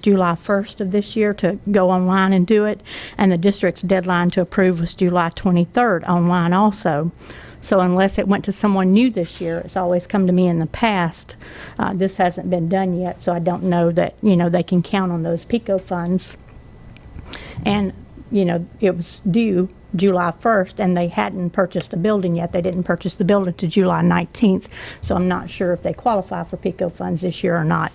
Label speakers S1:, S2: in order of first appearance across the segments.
S1: July 1st of this year to go online and do it, and the district's deadline to approve was July 23rd online also. So unless it went to someone new this year, it's always come to me in the past, uh, this hasn't been done yet, so I don't know that, you know, they can count on those PICO funds. And, you know, it was due July 1st, and they hadn't purchased a building yet. They didn't purchase the building to July 19th, so I'm not sure if they qualify for PICO funds this year or not.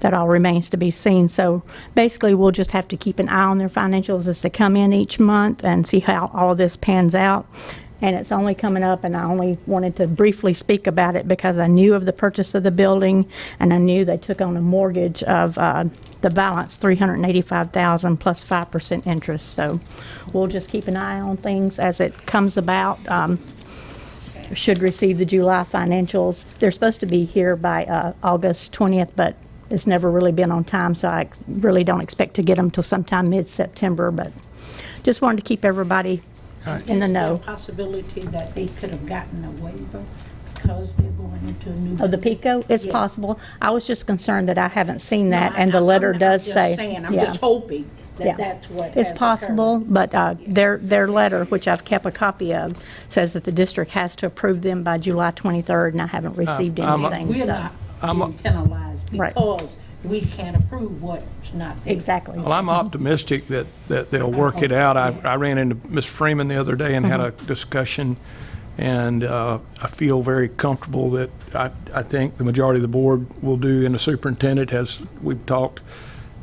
S1: That all remains to be seen. So basically, we'll just have to keep an eye on their financials as they come in each month and see how all of this pans out. And it's only coming up, and I only wanted to briefly speak about it because I knew of the purchase of the building, and I knew they took on a mortgage of uh, the balance, 385000 plus 5% interest. So we'll just keep an eye on things as it comes about. Um, Should receive the July financials. They're supposed to be here by uh, August 20th, but it's never really been on time, so I really don't expect to get them till sometime mid-September, but just wanted to keep everybody in the
S2: Is there a
S1: know.
S2: possibility that they could have gotten a waiver because they're going into a new.
S1: Of the
S2: building?
S1: PICO? It's
S2: Yeah.
S1: possible. I was just concerned that I haven't seen
S2: No,
S1: that,
S2: I-
S1: and the
S2: I'm-
S1: letter
S2: I'm-
S1: does say.
S2: I'm just saying, I'm
S1: yeah,
S2: just hoping
S1: yeah.
S2: that that's what has
S1: It's
S2: occurred.
S1: possible, but uh, their, their letter, which I've kept a copy of, says that the district has to approve them by July 23rd, and I haven't received anything,
S2: We're
S1: so.
S2: not being penalized
S1: Right.
S2: because we can't approve what's not there.
S1: Exactly.
S3: Well, I'm optimistic that, that they'll work it out. I, I ran into Ms. Freeman the other day and had a
S1: Uh-huh.
S3: discussion, and uh, I feel very comfortable that I, I think the majority of the board will do, and the superintendent, as we've talked,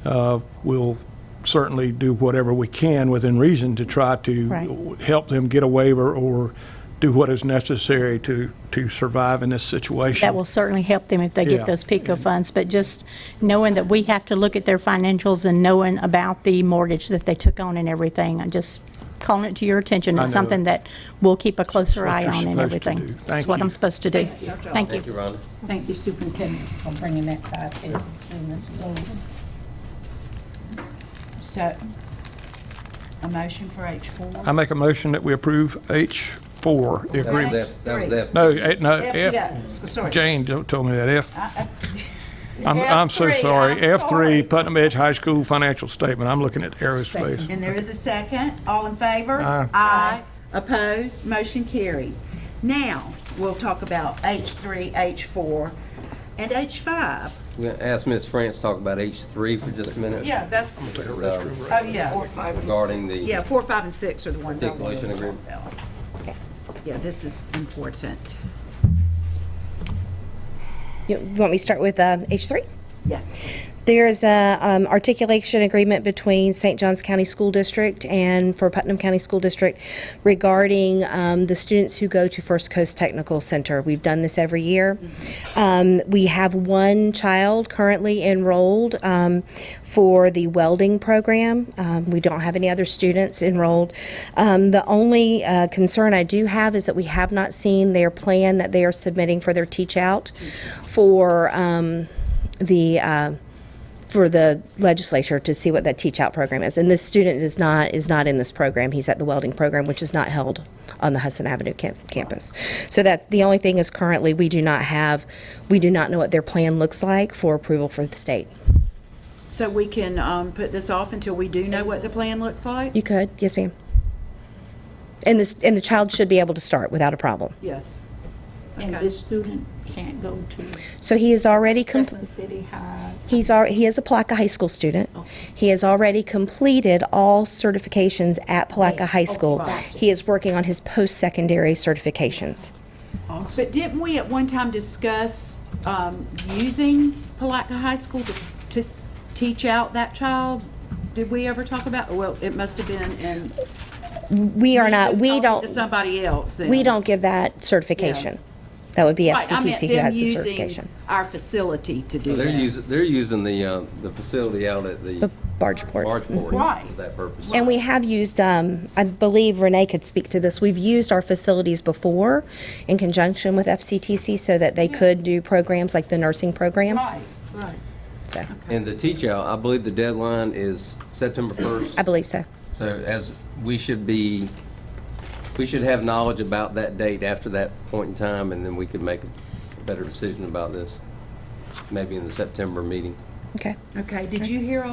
S3: uh, will certainly do whatever we can within reason to try to
S1: Right.
S3: help them get a waiver or do what is necessary to, to survive in this situation.
S1: That will certainly help them if they
S3: Yeah.
S1: get those PICO funds, but just knowing that we have to look at their financials and knowing about the mortgage that they took on and everything, I'm just calling it to your attention.
S3: I
S1: It's
S3: know.
S1: something that we'll keep a closer
S3: what
S1: eye
S3: you're
S1: on and
S3: supposed to
S1: everything.
S3: do.
S1: That's
S3: Thank
S1: what
S3: you.
S1: I'm supposed to do.
S2: Thank you.
S1: Thank you.
S4: Thank you, Rhonda.
S2: Thank you, Superintendent, for bringing that to our attention, Mrs. Sullivan.
S5: So, a motion for H4?
S3: I make a motion that we approve H4, the
S4: That was
S3: agreement.
S4: F, that was F.
S3: No, eh, no, F.
S5: Yeah, s- sorry.
S3: Jane don't tell me that. F, I'm, I'm so
S5: F3,
S3: sorry.
S5: I'm sorry.
S3: F3, Putnam Edge High School financial statement. I'm looking at aerospace.
S5: And there is a second. All in favor?
S3: Aye.
S5: Aye. Opposed? Motion carries. Now, we'll talk about H3, H4, and H5.
S4: We're gonna ask Ms. France to talk about H3 for just a minute.
S5: Yeah, that's,
S4: um,
S5: oh, yeah.
S4: Regarding the,
S5: Yeah, four, five, and six are the ones I wanted to
S4: Declaration
S5: talk
S4: agreement.
S5: about. Yeah, this is important.
S6: You want me to start with um, H3?
S5: Yes.
S6: There's a um, articulation agreement between St. Johns County School District and for Putnam County School District regarding um, the students who go to First Coast Technical Center. We've done this every year. Um, we have one child currently enrolled um, for the welding program. Um, we don't have any other students enrolled. Um, the only uh, concern I do have is that we have not seen their plan that they are submitting for their teach out for um, the uh, for the legislature to see what that teach out program is. And this student is not, is not in this program. He's at the welding program, which is not held on the Hudson Avenue cam- campus. So that's, the only thing is currently, we do not have, we do not know what their plan looks like for approval for the state.
S5: So we can um, put this off until we do know what the plan looks like?
S6: You could, yes ma'am. And this, and the child should be able to start without a problem.
S5: Yes.
S2: And
S5: Okay.
S2: this student can't go to
S6: So he is already, com-
S2: Crescent City High.
S6: he's, al- he is a Palaka High School student. He has already completed all certifications at Palaka High School. He is working on his post-secondary certifications.
S5: But didn't we at one time discuss um, using Palatka High School to- to teach out that child? Did we ever talk about, well, it must have been in.
S6: We are not,
S5: Just
S6: we
S5: talking
S6: don't,
S5: To somebody else then.
S6: we don't give that certification. That would be
S5: Right, I meant
S6: FCTC who
S5: them
S6: has the
S5: using
S6: certification.
S5: our facility to do
S4: they're
S5: that.
S4: using, they're using the, uh, the facility out at the
S6: The Bargeport.
S4: Bargeport
S5: Right.
S4: for that purpose.
S6: And we have used, um, I believe Renee could speak to this, we've used our facilities before in conjunction with FCTC so that they could do programs like the nursing program.
S5: Right, right.
S6: So,
S4: And the teach-out, I believe the deadline is September 1st.
S6: I believe so.
S4: So as, we should be, we should have knowledge about that date after that point in time, and then we could make a better decision about this, maybe in the September meeting.
S6: Okay.
S5: Okay, did you hear